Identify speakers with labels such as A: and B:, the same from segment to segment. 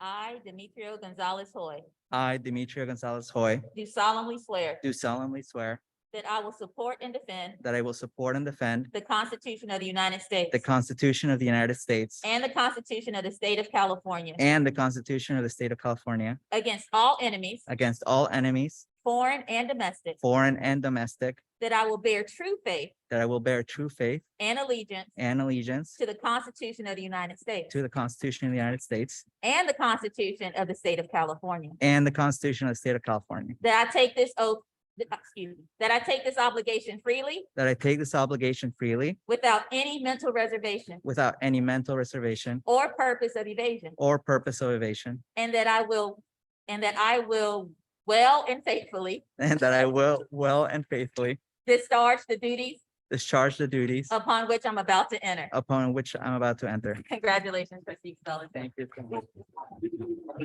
A: I, Demetrio Gonzalez Hoy,
B: I, Demetrio Gonzalez Hoy,
A: do solemnly swear
B: do solemnly swear
A: that I will support and defend
B: that I will support and defend
A: the Constitution of the United States
B: the Constitution of the United States
A: and the Constitution of the State of California
B: and the Constitution of the State of California
A: against all enemies,
B: against all enemies,
A: foreign and domestic,
B: foreign and domestic,
A: that I will bear true faith
B: that I will bear true faith
A: and allegiance
B: and allegiance
A: to the Constitution of the United States
B: to the Constitution of the United States
A: and the Constitution of the State of California,
B: and the Constitution of the State of California,
A: that I take this oath, th- uh, excuse me, that I take this obligation freely
B: that I take this obligation freely
A: without any mental reservation
B: without any mental reservation
A: or purpose of evasion,
B: or purpose of evasion,
A: and that I will, and that I will well and faithfully
B: and that I will well and faithfully
A: discharge the duties
B: discharge the duties
A: upon which I'm about to enter.
B: upon which I'm about to enter.
A: Congratulations, trustee Spelling.
B: Thank you so much.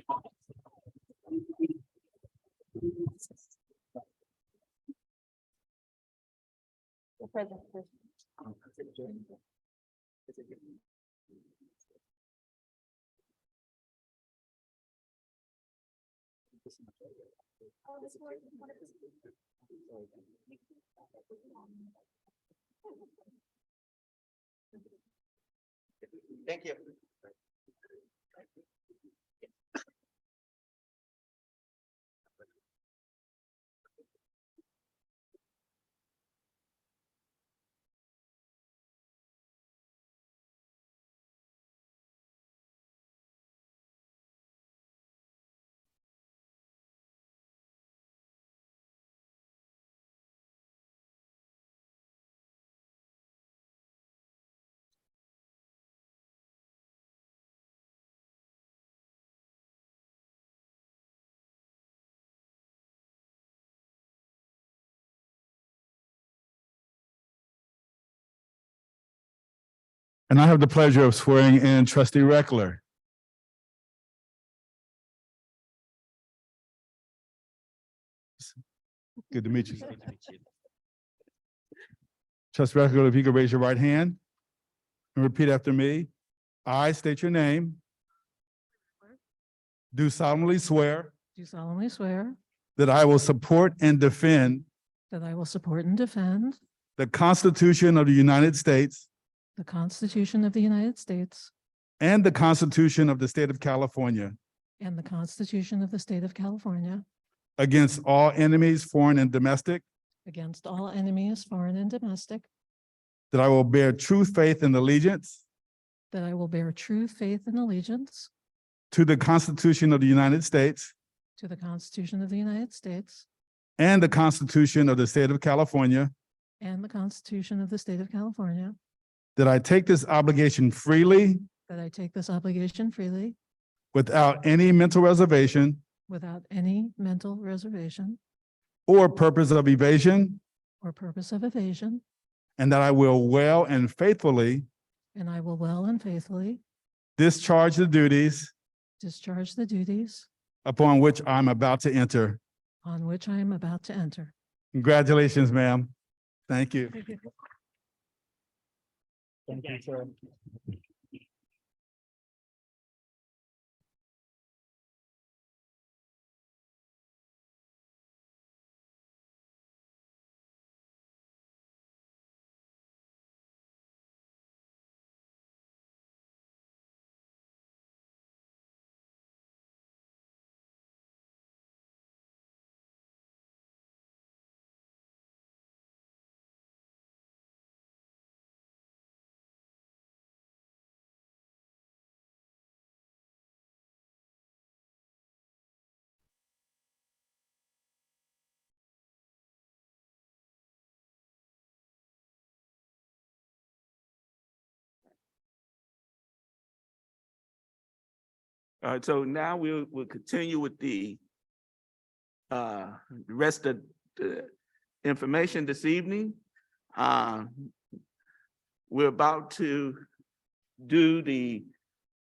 B: Thank you.
C: And I have the pleasure of swearing in trustee Reckler. Good to meet you. Trustee Reckler, if you could raise your right hand and repeat after me. I state your name. Do solemnly swear
D: Do solemnly swear
C: that I will support and defend
D: that I will support and defend
C: the Constitution of the United States
D: the Constitution of the United States
C: and the Constitution of the State of California
D: and the Constitution of the State of California
C: against all enemies, foreign and domestic,
D: against all enemies, foreign and domestic,
C: that I will bear true faith and allegiance
D: that I will bear true faith and allegiance
C: to the Constitution of the United States
D: to the Constitution of the United States
C: and the Constitution of the State of California,
D: and the Constitution of the State of California,
C: that I take this obligation freely
D: that I take this obligation freely
C: without any mental reservation
D: without any mental reservation
C: or purpose of evasion,
D: or purpose of evasion,
C: and that I will well and faithfully
D: and I will well and faithfully
C: discharge the duties
D: discharge the duties
C: upon which I'm about to enter.
D: on which I am about to enter.
C: Congratulations, ma'am. Thank you.
B: Thank you, sir.
E: All right, so now we'll, we'll continue with the uh, rest of the information this evening. Uh, We're about to do the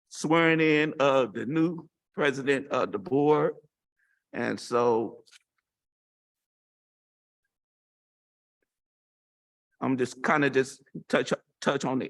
E: swearing in of the new president of the board. And so I'm just kind of just touch, touch on the